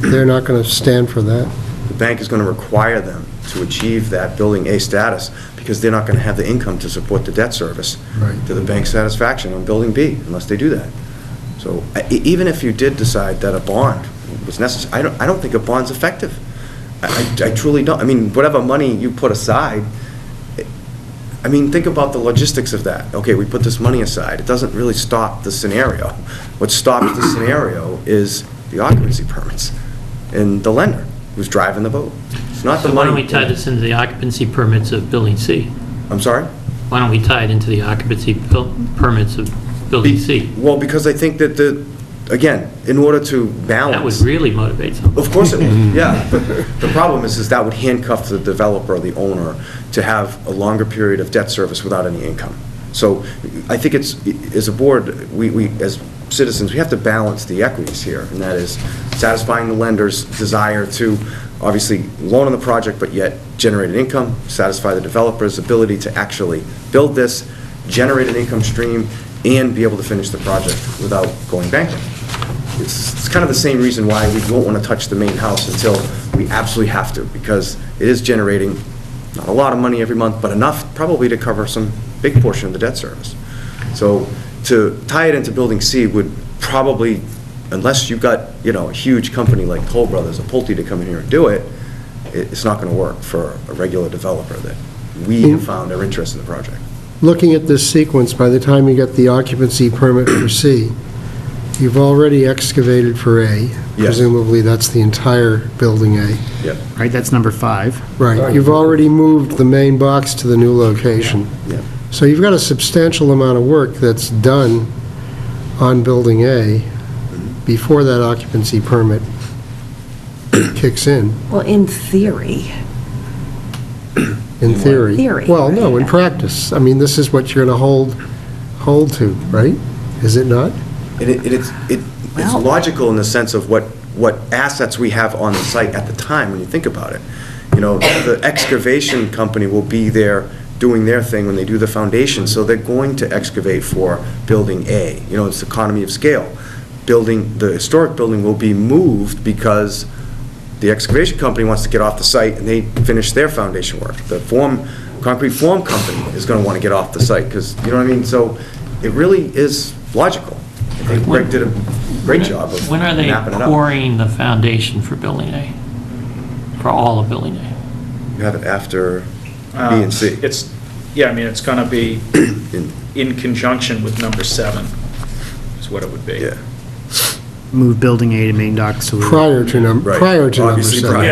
They're not going to stand for that. The bank is going to require them to achieve that Building A status, because they're not going to have the income to support the debt service Right. to the bank's satisfaction on Building B, unless they do that. So I- e- even if you did decide that a bond was necessary, I don't, I don't think a bond's effective. I I- I truly don't. I mean, whatever money you put aside, I mean, think about the logistics of that. Okay, we put this money aside. It doesn't really stop the scenario. What stops the scenario is the occupancy permits and the lender who's driving the boat. It's not So the why money. don't we tie this into the occupancy permits of Building C? I'm sorry? Why don't we tie it into the occupancy pil- permits of Building C? Well, because I think that the, again, in order to balance. That would really motivate someone. Of course it would, yeah. The problem is, is that would handcuff the developer, or the owner, to have a longer period of debt service without any income. So I think it's, as a board, we, we, as citizens, we have to balance the equities here, and that is satisfying the lender's desire to, obviously, loan on the project, but yet generate an income, satisfy the developer's ability to actually build this, generate an income stream, and be able to finish the project without going bankrupt. It's it's kind of the same reason why we won't want to touch the main house until we absolutely have to, because it is generating not a lot of money every month, but enough probably to cover some big portion of the debt service. So to tie it into Building C would probably, unless you got, you know, a huge company like Toll Brothers or Pulte to come in here and do it, it- it's not going to work for a regular developer that we have found are interested in the project. Looking at this sequence, by the time you get the occupancy permit for C, you've already excavated for A. Presumably, that's the entire Building A. Yeah, right? That's number five. Right. You've already moved the main box to the new location. yeah. So you've got a substantial amount of work that's done on Building A before that occupancy permit kicks in, Well, in theory, in theory. Theory, Well, no, in right. practice. I mean, this is what you're going to hold, hold to, right? Is it not? And it, and it's, it- it's Well- logical in the sense of what, what assets we have on the site at the time, when you think about it. You know, the excavation company will be there doing their thing when they do the foundation, so they're going to excavate for Building A. You know, it's economy of scale. Building, the historic building will be moved because the excavation company wants to get off the site, and they finish their foundation work. The form, concrete form company is gonna wanna get off the site, because, you know what I mean? So it really is logical. I think Greg did a great job of When are they mapping it out. pouring the foundation for Building A? For all of Building A? You have it after B and C. Um, It's, yeah, I mean, it's going to be In- in conjunction with number seven, is what it would be. Yeah, Move building A to main dock sewer. Prior to number, Right. prior to number Obviously prior. seven.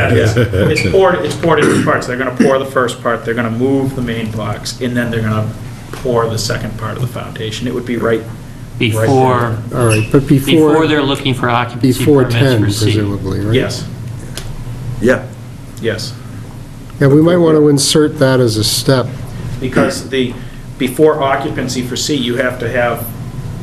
Yeah, it's- it's poured, it's poured in parts. They're going to pour the first part, they're going to move the main blocks, and then they're going to pour the second part of the foundation. It would be right, Before, All right, but before. before they're looking for occupancy Before permits 10, for C? presumably, right? yes, yeah, yes. Yeah, we might want to insert that as a step. Because the, before occupancy for C, you have to have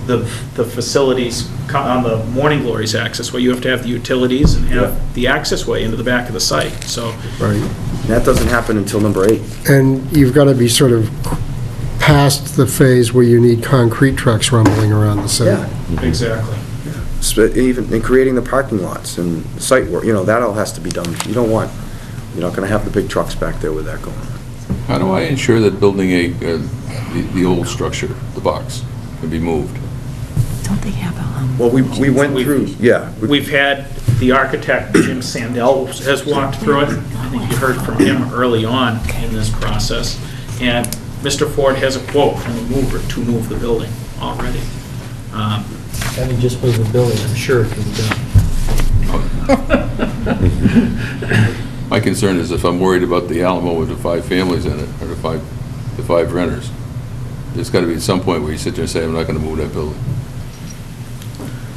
the, the facilities co- on the Morning Glory's access way. You have to have the utilities and Yeah. have the access way into the back of the site, so. Right. And that doesn't happen until number eight. And you've got to be sort of past the phase where you need concrete trucks rumbling around the Yeah, site. Exactly. Sp- even, and creating the parking lots and site work, you know, that all has to be done. You don't want, you're not gonna have the big trucks back there with that going on. How do I ensure that building a, uh, the the old structure, the box, can be moved? don't they have a... Well, we, we went We've- through, yeah. we- We've had, the architect, Jim Sandell, has walked through it. I think you heard from him early on in this process. And Mr. Ford has a quote from a mover to move the building already. Um, Having just moved the building, I'm sure it can be done. My concern is if I'm worried about the Alamo with the five families in it, or the five, the five renters, there's got to be some point where you sit there and say, I'm not going to move that building.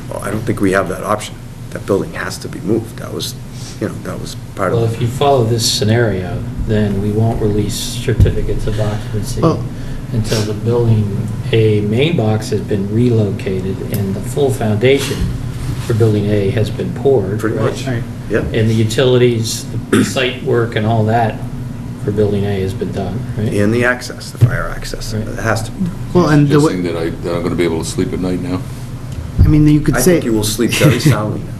Well, I don't think we have that option. That building has to be moved. That was, you know, that was part Well, if of, you follow this scenario, then we won't release certificates of occupancy Well- until the building, A main box has been relocated and the full foundation for building A has been poured. Pretty right? much. yeah. And the utilities, the site work and all that for building A has been done, right? And the access, the fire access, it Right. has to be. Well, and the, Just way- saying that I, that I'm going to be able to sleep at night now. I mean, you could I say, think you will sleep very soundly now.